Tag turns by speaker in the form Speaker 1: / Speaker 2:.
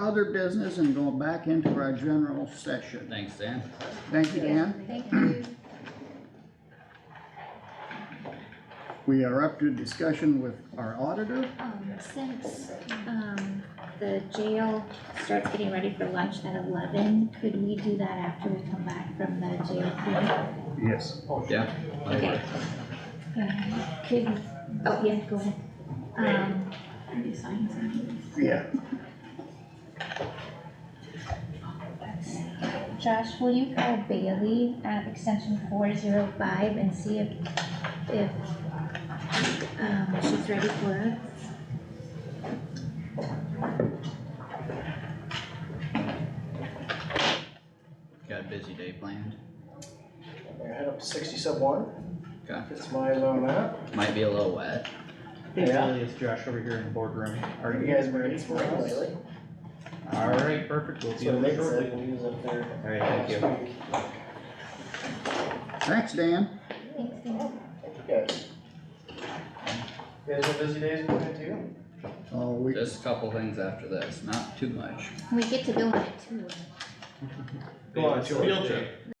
Speaker 1: other business and go back into our general session.
Speaker 2: Thanks, Dan.
Speaker 1: Thank you, Dan.
Speaker 3: Thank you.
Speaker 1: We are up to discussion with our auditor.
Speaker 3: Um, since, um, the jail starts getting ready for lunch at eleven, could we do that after we come back from the jail? thing?
Speaker 1: Yes.
Speaker 2: Yeah.
Speaker 3: Okay. Uh, Could, oh, yeah, go ahead. Um, are you signing something?
Speaker 1: Yeah.
Speaker 3: Josh, will you call Bailey at extension four zero five and see if, if, um, she's ready for us?
Speaker 2: Got a busy day planned.
Speaker 4: I head up to sixty sub one,
Speaker 2: Okay.
Speaker 4: it's my low map.
Speaker 2: Might be a little wet.
Speaker 5: Hey,
Speaker 4: Yeah.
Speaker 5: Billy, it's Josh over here in the boardroom.
Speaker 4: Are you guys ready for it?
Speaker 5: Alright, perfect, we'll
Speaker 4: That's
Speaker 5: see you
Speaker 4: what Nick
Speaker 5: shortly.
Speaker 4: said when he was up there.
Speaker 5: Alright, thank you.
Speaker 4: last week.
Speaker 1: Thanks, Dan.
Speaker 3: Thanks, Dan.
Speaker 4: Thank you guys. You guys have busy days planned too?
Speaker 1: Oh, we,
Speaker 2: Just a couple things after this, not too much.
Speaker 3: We get to go on a tour.
Speaker 4: Go on, George.
Speaker 5: Field trip.